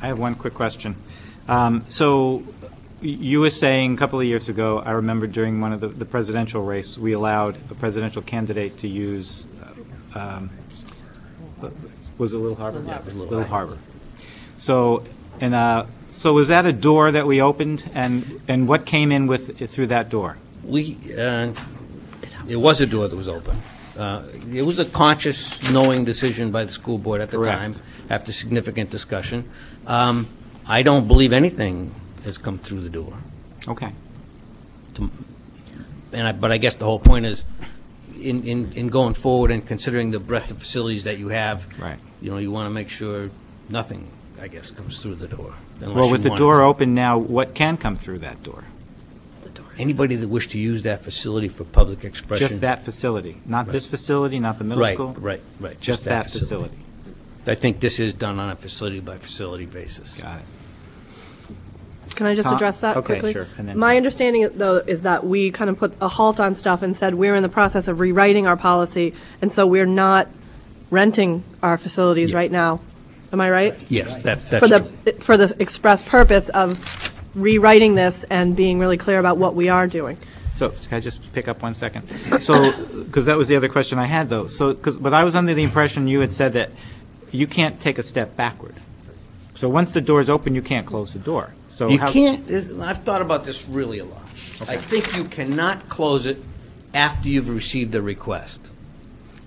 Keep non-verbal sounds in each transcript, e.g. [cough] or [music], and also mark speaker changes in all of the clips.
Speaker 1: I have one quick question. Um, So you were saying a couple of years ago, I remember during one of the- the presidential race, we allowed a presidential candidate to use, um, was it Little Harbor?
Speaker 2: Little Harbor.
Speaker 1: Little Harbor. So, and, uh, so was that a door that we opened? And, and what came in with, through that door?
Speaker 2: We, uh, it was a door that was open. Uh, It was a conscious, knowing decision by the school board at the
Speaker 1: Correct.
Speaker 2: time, after significant discussion. Um, I don't believe anything has come through the door.
Speaker 1: Okay.
Speaker 2: And I, but I guess the whole point is, in, in, in going forward and considering the breadth of facilities that you have.
Speaker 1: Right.
Speaker 2: You know, you want to make sure nothing, I guess, comes through the door. unless
Speaker 1: Well,
Speaker 2: you
Speaker 1: with the
Speaker 2: want
Speaker 1: door
Speaker 2: it.
Speaker 1: open now, what can come through that door?
Speaker 2: Anybody that wished to use that facility for public expression.
Speaker 1: Just that facility? Not this facility, not the middle
Speaker 2: Right,
Speaker 1: school?
Speaker 2: right, right.
Speaker 1: Just that facility?
Speaker 2: I think this is done on a facility-by-facility basis.
Speaker 1: Got it.
Speaker 3: Can I just
Speaker 1: Tom-
Speaker 3: address that
Speaker 1: okay,
Speaker 3: quickly?
Speaker 1: sure, and then
Speaker 3: My
Speaker 1: Tom.
Speaker 3: understanding, though, is that we kind of put a halt on stuff and said, we're in the process of rewriting our policy, and so we're not renting our facilities
Speaker 2: Yeah.
Speaker 3: right now. Am I right?
Speaker 2: Yes, that, that's
Speaker 3: For the,
Speaker 2: true.
Speaker 3: for the express purpose of rewriting this and being really clear about what we are doing.
Speaker 1: So, can I just pick up one second? So, because that was the other question I had, though. So, because, but I was under the impression you had said that you can't take a step backward. So once the door's open, you can't close the door. So
Speaker 2: You
Speaker 1: how-
Speaker 2: can't, this- I've thought about this really a lot. I think you cannot close it after you've received a request.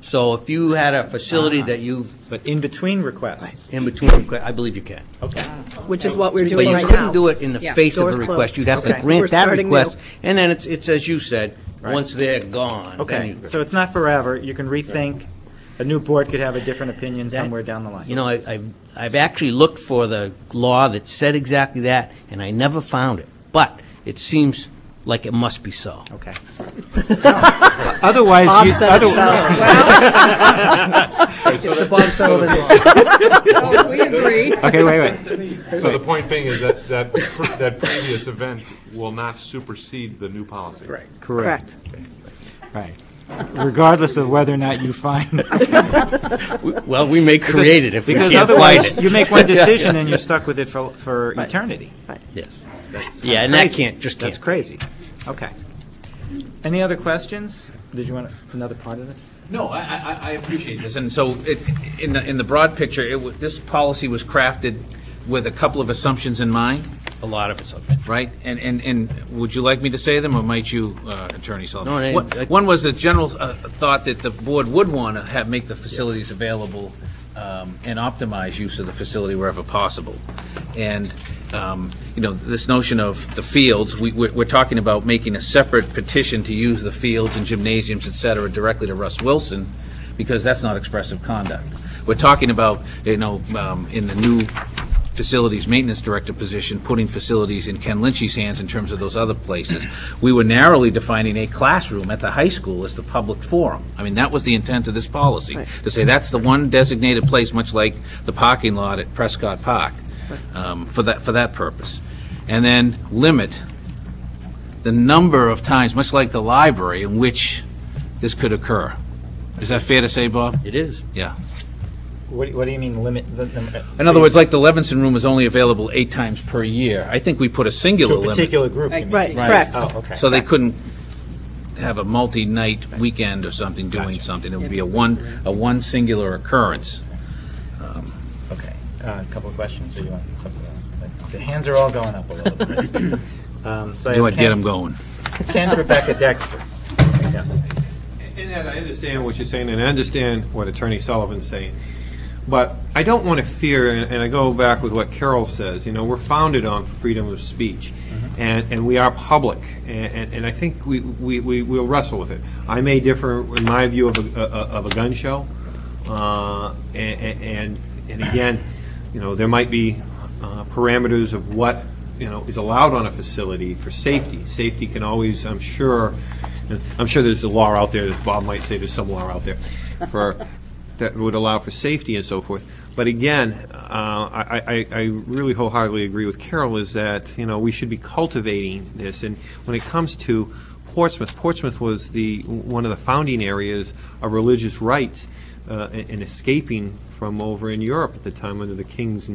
Speaker 2: So if you had a facility that you've,
Speaker 1: But in between requests.
Speaker 2: in between, requ- I believe you can.
Speaker 1: Okay.
Speaker 3: Which is what we're
Speaker 2: But
Speaker 3: doing
Speaker 2: you
Speaker 3: right now.
Speaker 2: couldn't do it in the
Speaker 4: Yeah.
Speaker 2: face of a
Speaker 3: Doors
Speaker 2: request.
Speaker 3: closed.
Speaker 2: You'd have to
Speaker 1: Okay.
Speaker 3: We're
Speaker 2: grant that
Speaker 3: starting new.
Speaker 2: request, and then it's, it's as you said, once they're gone. then
Speaker 1: Okay,
Speaker 2: you-
Speaker 1: so it's not forever. You can rethink. A new board could have a different opinion
Speaker 2: that-
Speaker 1: somewhere down the line.
Speaker 2: You know, I, I've, I've actually looked for the law that said exactly that, and I never found it. But it seems like it must be so.
Speaker 1: Okay. [laughs] Otherwise,
Speaker 3: Bob
Speaker 1: you,
Speaker 3: said it
Speaker 1: [laughs] other-
Speaker 3: so.
Speaker 4: [laughs] It's the Bob
Speaker 2: [laughs]
Speaker 4: Sullivan
Speaker 5: So we agree.
Speaker 1: okay, wait, wait.
Speaker 6: So the point being is that, that, pre- that previous event will not supersede the new policy. Right.
Speaker 3: Correct.
Speaker 1: Right. Regardless of whether or not you
Speaker 7: [laughs]
Speaker 1: find
Speaker 2: Well, we may create it if we
Speaker 1: Because
Speaker 2: can't find
Speaker 1: otherwise,
Speaker 2: it.
Speaker 1: you make
Speaker 7: [laughs]
Speaker 1: one decision and you're stuck with it for, for eternity.
Speaker 2: Yes. Yeah, and that can't, just can't.
Speaker 1: That's crazy. Okay. Any other questions? Did you want another part of this?
Speaker 7: No, I- I, I, I appreciate this, and so, it, in the, in the broad picture, it, wa- this policy was crafted with a couple of assumptions in mind,
Speaker 2: A lot of it's up.
Speaker 7: right? And, and, and would you like me to say them, or might you, uh, Attorney Sullivan?
Speaker 2: No, I-
Speaker 7: One-
Speaker 2: I-
Speaker 7: One was the general, uh, thought that the board would wanna have, make the facilities available, um, and optimize use of the facility wherever possible. And, um, you know, this notion of the fields, we, we're, we're talking about making a separate petition to use the fields and gymnasiums, et cetera, directly to Russ Wilson, because that's not expressive conduct. We're talking about, you know, um, in the new facilities maintenance director position, putting facilities in Ken Lynch's hands in terms of those other places. We were narrowly defining a classroom at the high school as the public forum. I mean, that was the intent of this policy, to say that's the one designated place, much like the parking lot at Prescott Park, um, for that, for that purpose. And then limit the number of times, much like the library, in which this could occur. Is that fair to say, Bob?
Speaker 2: It is.
Speaker 7: Yeah.
Speaker 1: What, do- what do you mean limit the? the- uh,
Speaker 7: In other words, like the Levinson room is only available eight times per year. I think we put a singular
Speaker 1: To a
Speaker 7: limit,
Speaker 1: particular group, you mean?
Speaker 3: Right, correct.
Speaker 1: Oh, okay.
Speaker 7: so they couldn't have a multi-night weekend or something doing something. It would be a one, a one singular occurrence.
Speaker 1: Okay. Uh, A couple of questions, or you want something else? The hands are all going up a little bit.
Speaker 7: [laughs]
Speaker 1: Um, So I
Speaker 7: You
Speaker 1: have
Speaker 7: would get
Speaker 1: Ken-
Speaker 7: them going.
Speaker 1: Ken Rebecca Dexter. Yes.
Speaker 6: And Ed, I understand what you're saying, and I understand what Attorney Sullivan's saying. But I don't want to fear, and and I go back with what Carol says, you know, we're founded on freedom of speech, and, and we are public, and, and- and I think we, we, we- we'll wrestle with it. I may differ in my view of a, a- of a gun show, uh, a- a- and, and again, you know, there might be uh, parameters of what, you know, is allowed on a facility for safety. Safety can always, I'm sure, I'm sure there's a law out there, that Bob might say there's some law out there, for, that would allow for safety and so forth. But again, uh, I, I, I really wholeheartedly agree with Carol is that, you know, we should be cultivating this. And when it comes to Portsmouth, Portsmouth was the, one of the founding areas of religious rights uh, and and escaping from over in Europe at the time under the kings and